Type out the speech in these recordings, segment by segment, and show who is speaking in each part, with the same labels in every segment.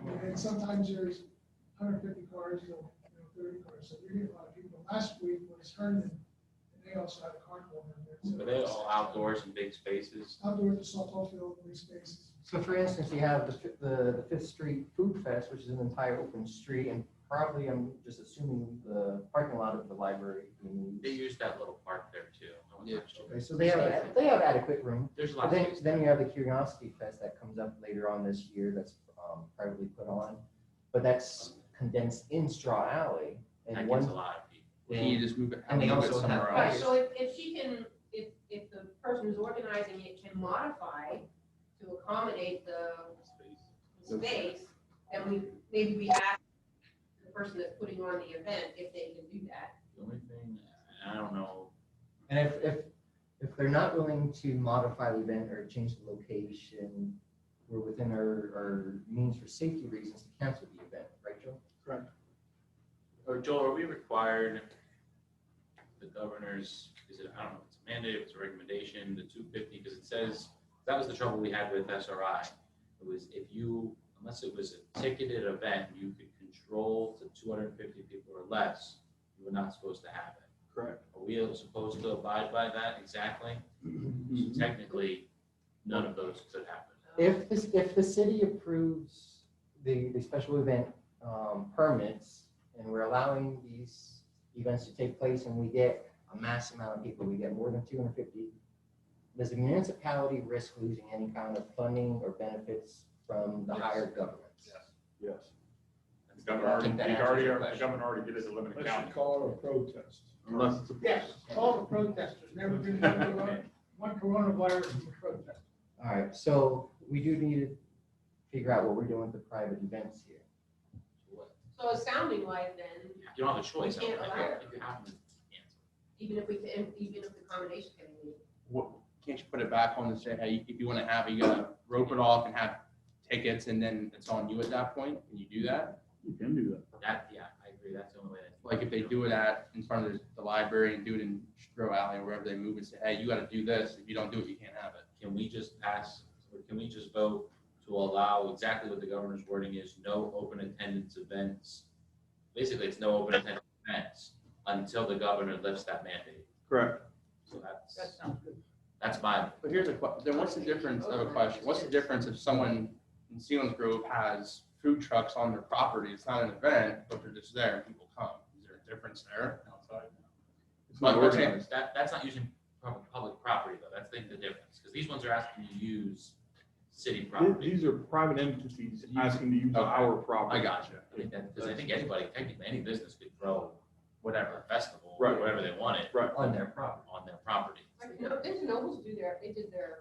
Speaker 1: and sometimes there's hundred fifty cars, you know, you know, thirty cars, so you're getting a lot of people. Last week was Herndon, and they also had a carnival. in there, so-
Speaker 2: Are they all outdoors in big spaces?
Speaker 1: Outdoors, the softball field, green spaces.
Speaker 3: So for instance, you have the, fi- the the Fifth Street Food Fest, which is an entire open street, and probably, I'm just assuming the parking lot of the library. being
Speaker 2: They
Speaker 3: used.
Speaker 2: use that little park there too. I was not sure.
Speaker 3: Okay, So they have, they have adequate room.
Speaker 2: There's
Speaker 3: But
Speaker 2: lots of
Speaker 3: then,
Speaker 2: space.
Speaker 3: then you have the Curiosity Fest that comes up later on this year that's um, privately put on, but that's condensed in Straw Alley.
Speaker 2: That
Speaker 3: And
Speaker 2: gets a
Speaker 3: one,
Speaker 2: lot of people.
Speaker 4: Well, you just move it, have
Speaker 3: And they
Speaker 4: move it
Speaker 3: also have
Speaker 4: somewhere
Speaker 5: Right,
Speaker 4: else.
Speaker 5: so if, if she can, if, if the person who's organizing it can modify to accommodate the space, then we, maybe we ask the person that's putting on the event if they can do that.
Speaker 2: The only thing, I don't know,
Speaker 3: and if, if, if they're not willing to modify the event or change the location, we're within our, our means for safety reasons to cancel the event, right, Joe?
Speaker 2: or Oh, Joel, are we required, the governor's, is it, I don't know, if it's a mandate, if it's a recommendation, the two fifty, because it says, that was the trouble we had with SRI. It was if you, unless it was a ticketed event, you could control to two hundred and fifty people or less, you were not supposed to have it.
Speaker 4: Correct.
Speaker 2: Are we supposed to abide by that exactly?
Speaker 4: Mm-hmm.
Speaker 2: So Technically, none of those could happen.
Speaker 5: Um,
Speaker 3: If this, if the city approves the, the special event um, permits and we're allowing these events to take place and we get a mass amount of people, we get more than two hundred fifty, does the municipality risk losing any kind of funding or benefits from the
Speaker 2: Yes.
Speaker 3: higher government?
Speaker 6: Yes.
Speaker 2: That's
Speaker 6: The
Speaker 2: the-
Speaker 6: governor already,
Speaker 3: think that
Speaker 6: the
Speaker 3: answers your
Speaker 6: governor, the
Speaker 3: question.
Speaker 6: governor already did it as a limited county.
Speaker 4: call it a protest.
Speaker 6: Unless it's a.
Speaker 1: Yes, all the protesters, never been one corona- one coronavirus from a protest.
Speaker 3: All right, so we do need to figure out what we're doing with the private events here.
Speaker 5: So it's sounding like then,
Speaker 2: You don't have a choice. I
Speaker 5: You
Speaker 2: don't
Speaker 5: can't
Speaker 2: I
Speaker 5: allow
Speaker 2: don't
Speaker 5: it.
Speaker 2: think you have to cancel.
Speaker 5: even if we can, even if the accommodation can be.
Speaker 4: What, can't you put it back on and say, hey, if you wanna have, it, you gotta rope it off and have tickets and then it's on you at that point? Can you do that?
Speaker 6: You can do that.
Speaker 2: That, yeah, I agree. That's the only way. that-
Speaker 4: Like if they do it at, in front of the- the library and do it in Stroh Alley or wherever they move and say, hey, you gotta do this. If you don't do it, you can't have it.
Speaker 2: Can we just pass, or can we just vote to allow exactly what the governor's wording is, no open attendance events? Basically, it's no open attendance events until the governor lifts that mandate.
Speaker 6: Correct.
Speaker 2: So that's,
Speaker 5: That sounds good.
Speaker 2: that's my,
Speaker 4: But here's a que, then what's the difference of a question? What's the difference if someone in Sealands Grove has food trucks on their property? It's not an event, but they're just there and people come. Is there a difference there?
Speaker 6: It's not
Speaker 4: But- but-
Speaker 6: organized.
Speaker 2: that, that's not using public, public property though. That's the, the difference. Because these ones are asking you to use city
Speaker 6: Th-
Speaker 2: property.
Speaker 6: These are private entities asking to use our property.
Speaker 2: I got you. I mean, that, because I think anybody, technically, any business could grow whatever festival,
Speaker 6: Right.
Speaker 2: whatever they wanted
Speaker 6: Right.
Speaker 3: On their property.
Speaker 2: on their property.
Speaker 5: Like, no, there's nobles do their, they did their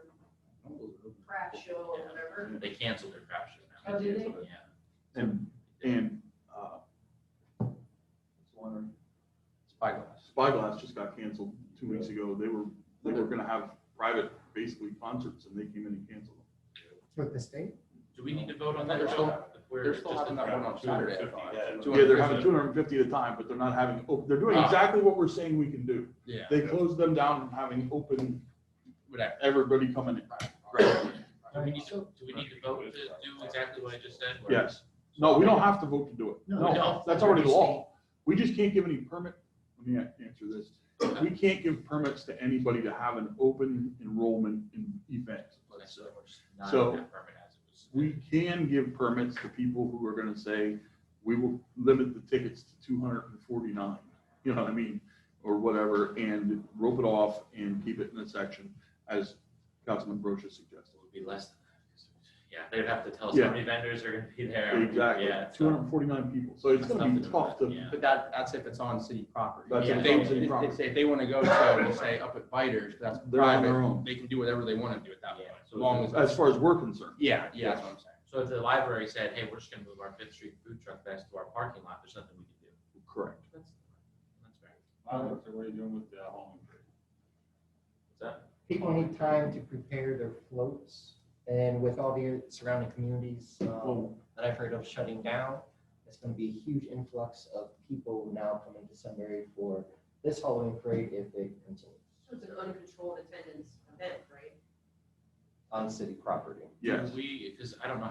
Speaker 5: craft show or whatever.
Speaker 2: They canceled their crap show now.
Speaker 5: Oh, did they?
Speaker 2: Yeah.
Speaker 6: And, and, uh, it's one-
Speaker 4: Spyglass.
Speaker 6: Spyglass just got canceled two weeks ago. They were, they were gonna have private, basically concerts and they came in and canceled them.
Speaker 3: With the state?
Speaker 2: Do we need to vote on that?
Speaker 4: They're
Speaker 2: or
Speaker 4: still-
Speaker 2: not? If we're
Speaker 4: they're still
Speaker 2: just
Speaker 4: having
Speaker 2: in
Speaker 4: that
Speaker 2: crap
Speaker 4: one on
Speaker 2: show.
Speaker 4: Saturday. I thought.
Speaker 6: Yeah, they're
Speaker 4: 250.
Speaker 6: having two hundred and fifty at a time, but they're not having, oh, they're doing
Speaker 4: Ah.
Speaker 6: exactly what we're saying we can do.
Speaker 4: Yeah.
Speaker 6: They closed them down from having open,
Speaker 4: Whatever.
Speaker 6: everybody coming in.
Speaker 4: Right.
Speaker 2: Do we need to, do we need to vote to do exactly what I just said? Or-
Speaker 6: Yes. No, we don't have to vote to do it.
Speaker 2: we
Speaker 6: No,
Speaker 2: don't.
Speaker 6: that's already law. We just can't give any permit, let me a- answer this. We can't give permits to anybody to have an open enrollment in event.
Speaker 2: Okay, so we're just not
Speaker 6: So-
Speaker 2: on that permit as it was.
Speaker 6: We can give permits to people who are gonna say, we will limit the tickets to two hundred and forty-nine, you know what I mean? Or whatever, and rope it off and keep it in a section, as Councilman Brochus suggested.
Speaker 2: It would be less than that. Yeah, they'd have to tell us
Speaker 6: Yeah.
Speaker 2: how many vendors are gonna be there.
Speaker 6: Exactly,
Speaker 2: Yeah. it's
Speaker 6: two hundred
Speaker 2: not-
Speaker 6: and forty-nine people, so it's
Speaker 2: That's
Speaker 6: gonna be
Speaker 2: nothing to
Speaker 6: tough
Speaker 2: do,
Speaker 6: to,
Speaker 2: yeah.
Speaker 4: But that, that's if it's on city property.
Speaker 6: That's
Speaker 4: If
Speaker 2: if
Speaker 4: they,
Speaker 2: it's on
Speaker 6: city
Speaker 4: if- if-
Speaker 6: property.
Speaker 4: if they wanna go to, we'll say up at Biters, that's
Speaker 6: they're on their
Speaker 4: private,
Speaker 6: own.
Speaker 4: they can do whatever they wanna do at that point,
Speaker 2: Yeah,
Speaker 4: as
Speaker 2: so
Speaker 4: long
Speaker 2: it's-
Speaker 4: as.
Speaker 6: As far as we're concerned.
Speaker 4: Yeah, yeah, that's what I'm saying.
Speaker 2: So if the library said, hey, we're just gonna move our Fifth Street food truck back to our parking lot, there's nothing we can do.
Speaker 6: Correct.
Speaker 2: That's, that's fair.
Speaker 6: what are you doing with the home?
Speaker 2: Is that-
Speaker 3: People need time to prepare their floats, and with all the surrounding communities um,
Speaker 6: Well-
Speaker 3: that I've heard of shutting down, it's gonna be a huge influx of people now coming to Sunbury for this Halloween parade if it continues
Speaker 5: So it's an uncontrolled attendance event, right?
Speaker 3: on city property.
Speaker 6: Yes.
Speaker 2: We, because I don't know